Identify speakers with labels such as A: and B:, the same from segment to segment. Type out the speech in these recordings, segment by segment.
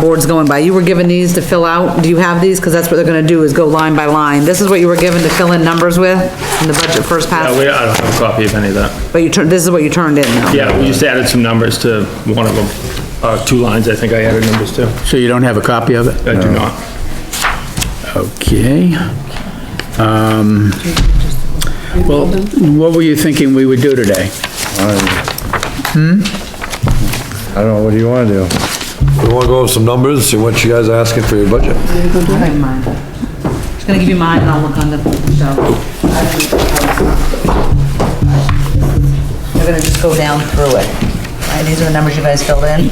A: board's going by. You were given these to fill out. Do you have these? Because that's what they're gonna do, is go line by line. This is what you were given to fill in numbers with in the budget first
B: Uh,
A: pass,
B: we, I don't have a copy of any of that.
A: but you turned, this is what you turned in though.
B: Yeah, we just added some numbers to one of them, uh, two lines, I think I added numbers to.
C: So you don't have a copy of it?
B: I do not.
C: Okay. Um, Well, what were you thinking we would do today?
D: I don't know, what do you wanna do?
E: We wanna go over some numbers, see what you guys are asking for your budget.
A: I have mine. Just gonna give you mine and I'll look on the shelf.
F: We're gonna just go down through it. Right, these are the numbers you guys filled in?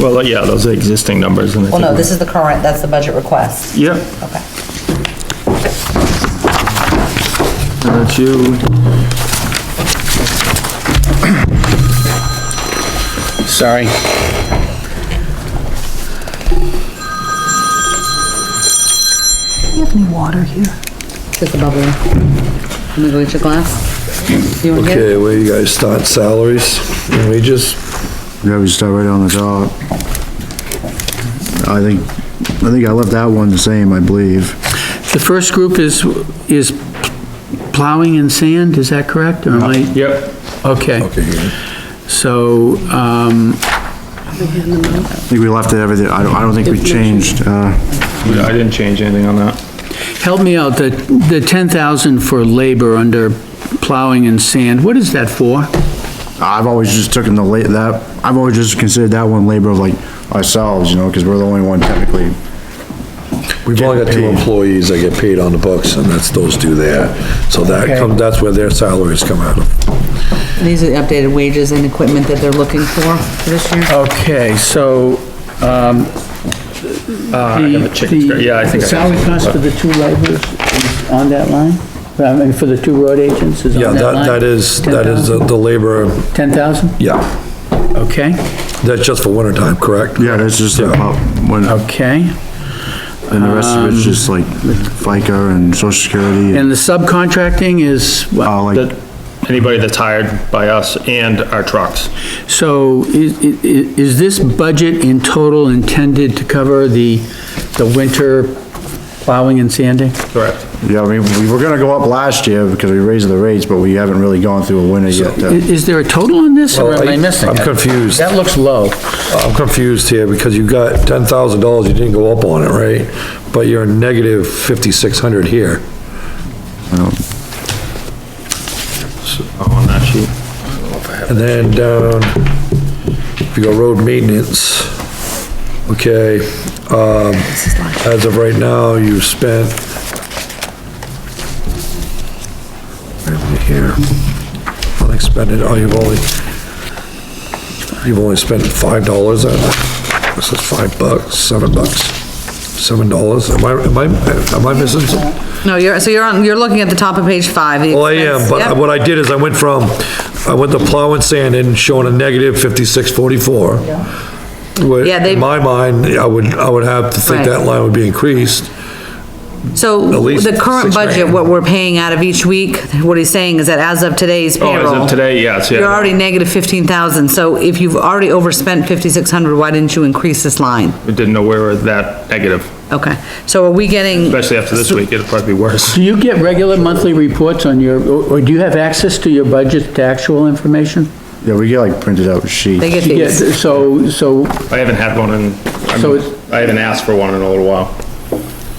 B: Well, uh, yeah, those are existing numbers and I
F: Well,
B: think
F: no,
B: we-
F: this is the current, that's the budget request.
B: Yeah,
F: Okay.
B: and that's you.
C: Sorry.
A: Just a bubble. Let me go get your glass. You wanna get it?
E: Okay, where you guys start salaries and wages?
D: Yeah, we start right on the top. I think, I think I left that one the same, I believe.
C: The first group is, is plowing and sand, is that correct? Or am I,
B: Yep.
C: okay. So, um,
D: I think we left it everything, I don't, I don't think we changed, uh,
B: Yeah, I didn't change anything on that.
C: help me out, the, the 10,000 for labor under plowing and sand, what is that for?
D: I've always just taken the la, that, I've always just considered that one labor of like ourselves, you know, cause we're the only one technically.
E: We've only got two
D: Getting paid.
E: employees that get paid on the books, and that's those two there. So that
C: Okay.
E: come, that's where their salaries come out of.
A: These are the updated wages and equipment that they're looking for for this
E: Oh.
A: year.
C: Okay, so, um,
E: Ah,
B: have a chicken scratch. Yeah, I
C: the
B: think I-
C: salary cost for the two laborers is on that line? I mean, for the two road agents is
E: Yeah,
C: on that
E: that,
C: line?
E: that is, that is uh, the the labor,
C: 10,000?
E: yeah,
C: Okay,
E: that's just for winter time, correct?
D: Yeah, that's just about, when,
C: Uh,
D: and
C: okay.
D: the rest of it's just like FICA and social security,
C: And the subcontracting is, what?
D: uh, like,
B: That, anybody that's hired by us and our trucks.
C: so is, is is this budget in total intended to cover the, the winter plowing and sanding?
B: Correct.
D: yeah, I mean, we were gonna go up last year because we raised the rates, but we haven't really gone through a winter yet.
C: I-
D: to-
C: Is there a total on this, or
E: Well,
C: am
E: Oh, I-
C: I missing
E: I'm
C: it?
E: confused.
C: That looks low.
E: I'm confused here, because you got ten thousand dollars, you didn't go up on it, right? But you're negative fifty-six hundred here.
B: Oh, On that sheet.
E: And then down, if you go road maintenance, okay, um, as of right now, you've spent. Where am I Here, unexpended, oh, you've only, you've only spent five dollars on it. This is five bucks, seven bucks, seven dollars, am I, am I, am I missing something?
A: No, you're, so you're on, you're looking at the top of page five. the
E: Well, I
A: expense-
E: am,
A: yep.
E: but what I did is I went from, I went to plow and sand and showing a negative fifty-six forty-four.
A: Yeah, they-
E: In my mind, I would, I would have to think that
A: Right.
E: line would be increased.
A: So
E: At least
A: the current
E: six
A: budget,
E: grand.
A: what we're paying out of each week, what he's saying is that as of today's
B: Oh,
A: payroll.
B: as of today, yes, yeah.
A: You're already negative fifteen thousand, so if you've already overspent fifty-six hundred, why didn't you increase this line?
B: We Didn't know we were that negative,
A: Okay, so are we getting,
B: especially after this week, it'd probably be worse.
C: Do you get regular monthly reports on your, or or do you have access to your budget, to actual information?
D: Yeah, we get like printed out sheets.
A: they get
C: Yeah,
A: these?
C: so, so,
B: I haven't had one in, I'm-
C: So it's-
B: I haven't asked for one in a little while.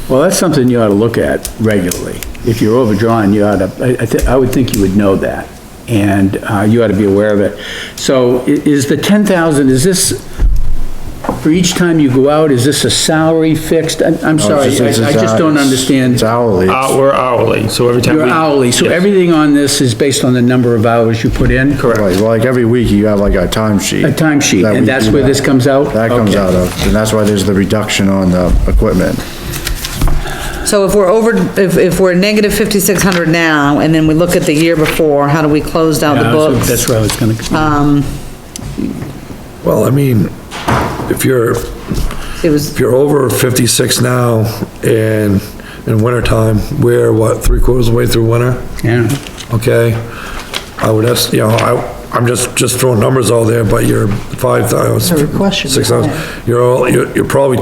C: well, that's something you ought to look at regularly. If you're overdrawn, you ought to, I, I thi- I would think you would know that, and, uh, you ought to be aware of it. So i- is the ten thousand, is this, for each time you go out, is this a salary fixed? I'm, I'm
D: No,
C: sorry,
D: Oh, it's
C: I
D: it's-
C: I
D: it's
C: just
D: hou-
C: don't
D: it's-
C: understand.
D: It's hourly.
B: Uh, we're hourly, so every time we.
C: Your hourly, so
B: Yes.
C: everything on this is based on the number of hours you put in?
D: Right, well, like every week you have like a timesheet.
C: A timesheet,
D: That
C: and
D: we
C: that's
D: do
C: where this comes out?
D: That comes
C: Okay.
D: out of, and that's why there's the reduction on the equipment.
A: So if we're over, if, if we're negative fifty-six hundred now, and then we look at the year before, how do we close out the
C: Yeah, so
A: books? Uh,
C: That's where I was gonna,
E: Well, I mean, if you're,
A: It was,
E: if you're over fifty-six now and in wintertime, we're what, three quarters of the way through winter?
C: yeah.
E: okay? I would ask, you know, I, I'm just, just throwing numbers all there, but you're five thousand,
F: request should be
E: six thousand, you're all, you're, you're probably